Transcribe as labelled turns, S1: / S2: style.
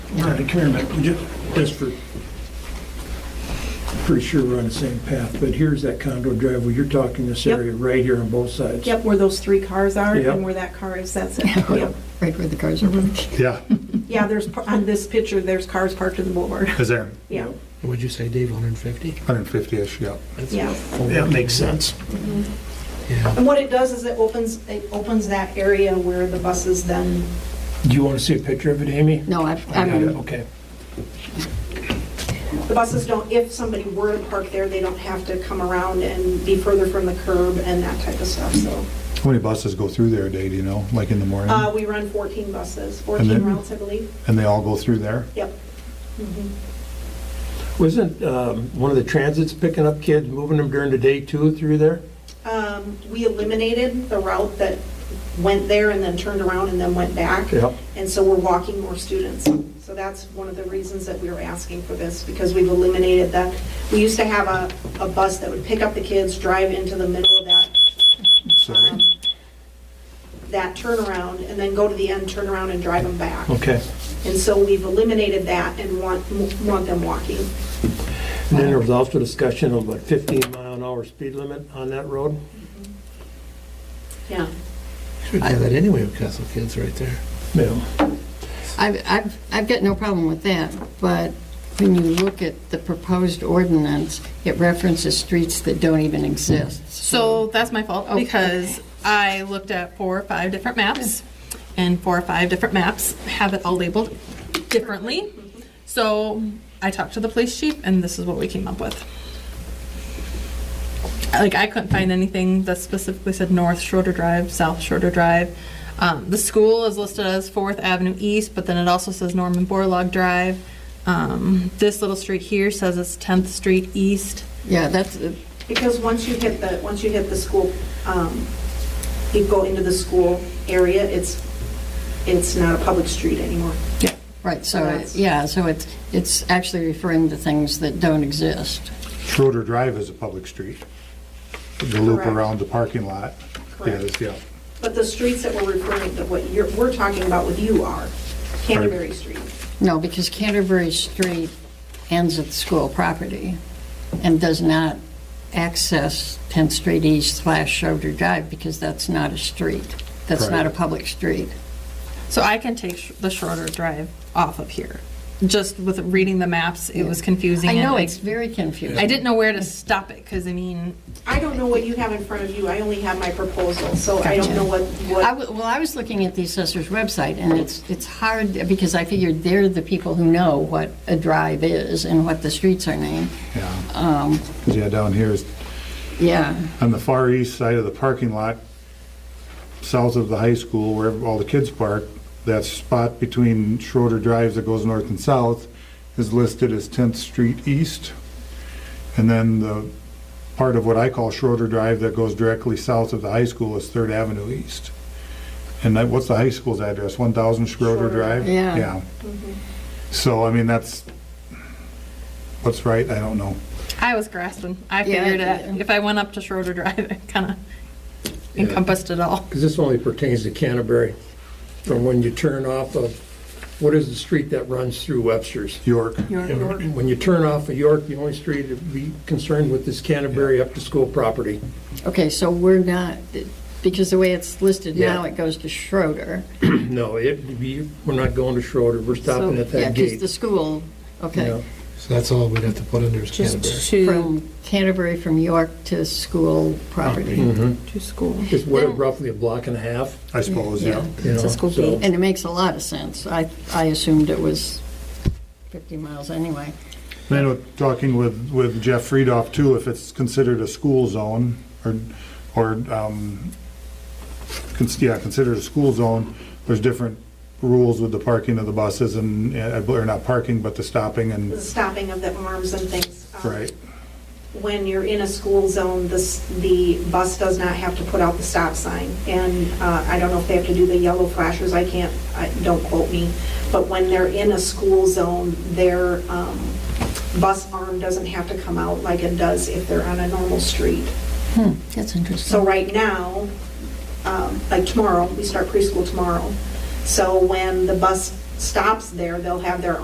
S1: Brenda, come here a minute, We ju- just for, pretty sure we're on the same path, but here's that condo driveway, you're talking this
S2: Yep.
S1: area right here on both sides.
S2: Yep, where those three cars are
S1: Yep.
S2: and where that car is, that's it. Yep.
S3: Right where the cars are
S1: Mm-hmm.
S3: parked.
S4: Yeah,
S2: Yeah, there's, par- on this picture, there's cars parked in the boulevard.
S4: is there
S2: Yeah,
S5: Would you say, Dave, 150?
S4: 150-ish, yeah.
S2: yeah.
S1: That makes sense.
S5: Yeah.
S6: And what it does is it opens, it opens that area where the buses then,
S1: Do you want to see a picture of it, Amy?
S3: No, I've,
S1: I
S2: Um,
S1: got it,
S3: I'm,
S1: Okay.
S6: the buses don't, if somebody were to park there, they don't have to come around and be further from the curb and that type of stuff, so.
S4: How many buses go through there a day, do you know, like in the morning?
S6: Uh, we run 14 buses,
S4: then-
S6: 14 routes, I believe.
S4: And they all go through there?
S6: Yep.
S1: Wasn't um, one of the transits picking up kids, moving them during the day too through there?
S6: Um, we eliminated the route that went there and then turned around and then went back.
S1: Yep.
S6: And so we're walking more students. So that's one of the reasons that we were asking for this, because we've eliminated that. We used to have a, a bus that would pick up the kids, drive into the middle of that
S4: Sorry.
S6: um, that turnaround, and then go to the end, turn around and drive them back.
S1: Okay.
S6: And so we've eliminated that and want, want them walking.
S1: And then there was also discussion of a 15 mile an hour speed limit on that road.
S6: Yeah.
S5: I have that anyway with Castle Kids right there.
S1: Yeah.
S3: I've, I've, I've got no problem with that, but when you look at the proposed ordinance, it references streets that don't even exist.
S7: So that's my fault
S3: Okay.
S7: because I looked at four or five different maps, and four or five different maps have it all labeled differently. So I talked to the police chief, and this is what we came up with. Like I couldn't find anything that specifically said North Schroeder Drive, South Schroeder Drive. Um, the school is listed as Fourth Avenue East, but then it also says Norman Borlaug Drive. Um, this little street here says it's 10th Street East.
S3: Yeah, that's, uh,
S6: Because once you hit the, once you hit the school, um, you go into the school area, it's, it's not a public street anymore.
S3: right, so, it-
S6: That's-
S3: yeah, so it's, it's actually referring to things that don't exist.
S4: Schroeder Drive is a public street. The loop
S6: Correct.
S4: around the parking lot is, yeah.
S6: But the streets that we're referring to, what you're, we're talking about with you are Canterbury Street.
S3: No, because Canterbury Street ends at the school property and does not access 10th Street East slash Shoulder Drive because that's not a street. That's not a
S4: Correct.
S3: public street.
S7: So I can take sh- the shorter drive off of here. Just with reading the maps, it was confusing.
S3: I
S7: and
S3: know,
S7: I-
S3: it's very confusing.
S7: I didn't know where to stop it, because I mean,
S6: I don't know what you have in front of you, I only have my proposal, so I don't
S3: Gotcha. Uh,
S6: know what,
S3: I
S6: what,
S3: w- Well, I was looking at the assessor's website, and it's, it's hard, because I figured they're the people who know what a drive is and what the streets are named.
S4: Yeah,
S3: Um,
S4: 'Cause, yeah, down here is,
S3: Yeah,
S4: on the far east side of the parking lot, south of the high school where all the kids park, that spot between Schroeder Drive that goes north and south is listed as 10th Street East. And then the part of what I call Schroeder Drive that goes directly south of the high school is Third Avenue East. And that, what's the high school's address? 1,000 Schroeder
S6: Schroeder.
S4: Drive?
S3: Yeah.
S4: So, I mean, that's, what's right, I don't know.
S7: I was grasping. I
S3: Yeah,
S7: figured
S3: yeah.
S7: it, if I went up to Schroeder Drive, it kind of encompassed it all.
S8: Because this only pertains to Canterbury, from when you turn off of, what is the street that runs through Webster's?
S4: York,
S8: When you turn off of York, the only street to be concerned with is Canterbury up to school property.
S3: okay, so we're not, because the way it's listed now,
S8: Yeah.
S3: it goes to Schroeder.
S8: No, it, we, we're not going to Schroeder, we're stopping
S3: So,
S8: at
S3: Yeah,
S8: that
S3: because the
S8: gate.
S3: school, okay,
S8: Yeah.
S5: So that's all we'd have to put under is
S7: Just
S5: Canterbury.
S7: to,
S3: from Canterbury, from York to school property.
S7: to school.
S8: It's what, roughly a block and a half,
S4: I suppose,
S8: you
S4: yeah.
S8: know?
S7: It's a school
S8: so-
S7: gate.
S3: And it makes a lot of sense. I, I assumed it was 50 miles anyway.
S4: And I know, talking with, with Jeff Friedoff too, if it's considered a school zone, or, or, um, cons- yeah, considered a school zone, there's different rules with the parking of the buses and, uh, or not parking, but the stopping
S6: the
S4: and,
S6: stopping of the arms and things. um,
S4: right,
S6: when you're in a school zone, the, s- the bus does not have to put out the stop sign. And uh, I don't know if they have to do the yellow flashers, I can't, I- don't quote me. But when they're in a school zone, their um, bus arm doesn't have to come out like it does if they're on a normal street.
S3: Hmm, That's interesting.
S6: So right now, um, like tomorrow, we start preschool tomorrow. So when the bus stops there, they'll have their